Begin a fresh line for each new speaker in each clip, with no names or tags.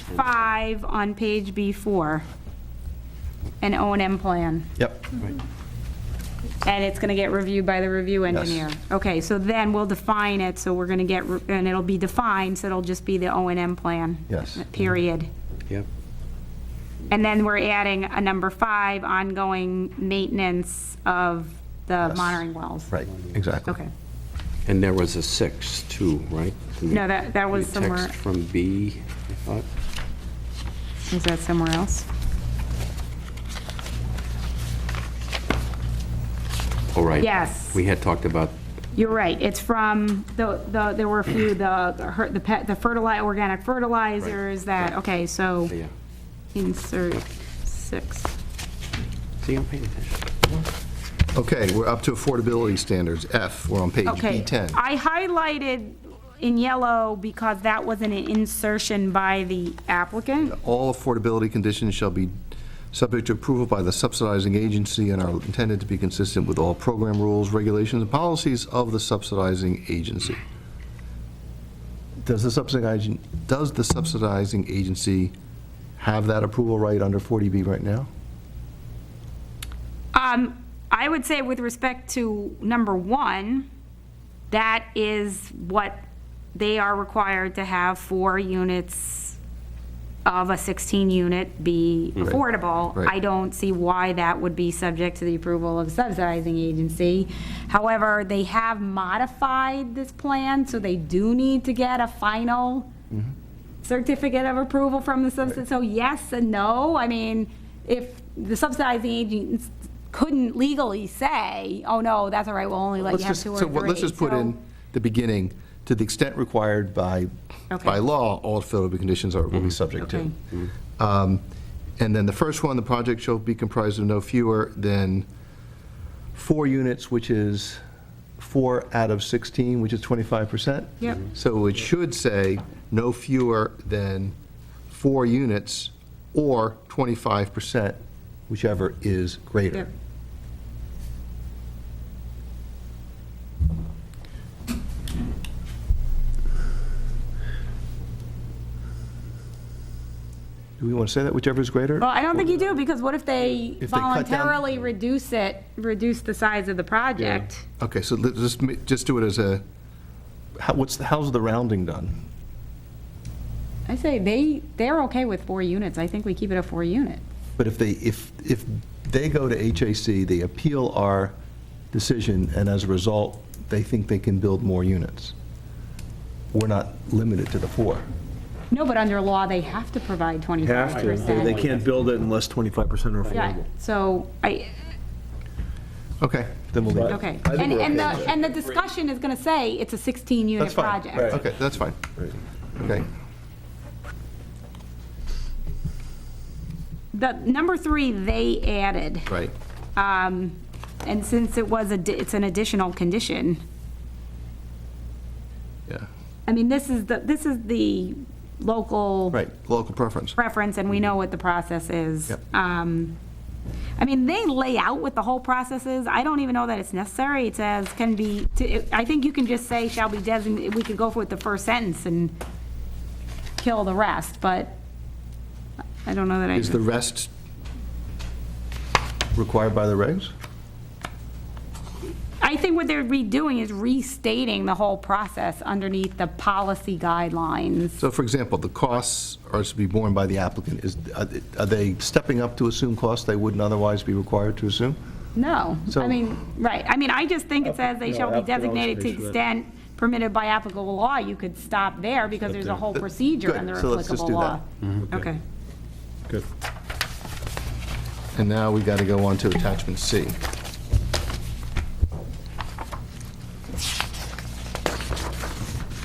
H5 on page B4, an O and M plan,
Yep.
and it's going to get reviewed by the review engineer.
Yes.
Okay, so then we'll define it, so we're going to get, re- and it'll be defined, so it'll just be the O and M plan.
Yes.
Period.
Yep.
And then we're adding a number five, ongoing maintenance of the
Yes.
monitoring wells.
Right, exactly.
Okay.
And there was a six, too, right?
No, that, that was
The
somewhere,
Text from B, I thought.
is that somewhere else?
Oh, right.
Yes.
We had talked about,
You're right, it's from, the, the there were a few, the, her- the pet, the fertilizer, organic fertilizers, that, okay, so
yeah.
insert six.
See, I'm paying attention.
Okay, we're up to affordability standards, F, we're on page
Okay,
B10.
I highlighted in yellow because that wasn't an insertion by the applicant.
All affordability conditions shall be subject to approval by the subsidizing agency and are intended to be consistent with all program rules, regulations, and policies of the subsidizing agency. Does the subsidizing, does the subsidizing agency have that approval right under 40B right now?
Um, I would say with respect to number one, that is what they are required to have four units of a 16-unit be affordable.
right.
I don't see why that would be subject to the approval of subsidizing agency. However, they have modified this plan, so they do need to get a final certificate of approval from the subsidy, so yes and no. I mean, if the subsidizing agents couldn't legally say, oh, no, that's all right, we'll only let
Let's
you have
just,
two or
so what-
three.
let's just put
So-
in the beginning, to the extent required by,
Okay.
by law, all affordable conditions are, will be subject to.
Okay.
Um, And then the first one, the project shall be comprised of no fewer than four units, which is four out of 16, which is 25%.
Yep.
So it should say no fewer than four units or 25%, whichever is greater.
Yep.
Do we want to say that, whichever is greater?
Well, I don't think you do, because what if they
If they cut down-
voluntarily reduce it, reduce the size of the project?
Okay, so let's just, ma- just do it as a, how, what's, the- how's the rounding done?
I say they, they're okay with four units, I think we keep it a four unit.
But if they, if, if they go to HAC, they appeal our decision, and as a result, they think they can build more units. We're not limited to the four.
No, but under law, they have to provide twenty-five
Have to.
percent.
They can't build it unless 25% are
Yeah,
affordable.
so I,
Okay, then we'll leave it.
okay.
I think
And,
we're
and the,
okay with
and the discussion is gonna say it's a sixteen-unit
That's fine.
project.
Okay, that's fine. Okay.
The, number three, they added.
Right.
Um, And since it was, a, di- it's an additional condition,
Yeah.
I mean, this is the, this is the local
Right, local preference.
preference, and we know what the process is.
Yep.
Um, I mean, they lay out what the whole process is. I don't even know that it's necessary. It says can be, to- I think you can just say shall be designated, we could go for the first sentence and kill the rest, but I don't know that I.
Is the rest required by the regs?
I think what they're redoing is restating the whole process underneath the policy guidelines.
So for example, the costs are to be borne by the applicant. Is, are they- are they stepping up to assume costs they wouldn't otherwise be required to assume?
No, I
So-
mean, right, I mean, I just think it says they
No,
shall be
after all,
designated to
they should.
extent permitted by applicable law, you could stop there because there's a whole procedure
Good,
under
so let's just
applicable
do
law.
that. Mm-hmm.
Okay,
Good.
And now we got to go on to attachment C.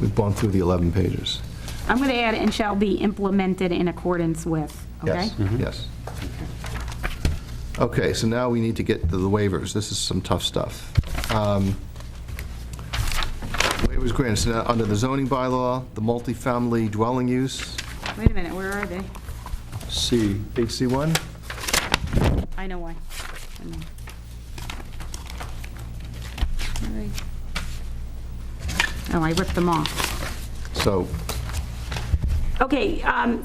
We've gone through the 11 pages.
I'm gonna add and shall be implemented in accordance with, okay?
Yes, yes. Okay, so now we need to get to the waivers. This is some tough stuff. Um, Waivers granted, so now, under the zoning bylaw, the multifamily dwelling use,
Wait a minute, where are they?
C.
HC1?
I know why. I know. Where are you? Oh, I ripped them off.
So
Okay, um,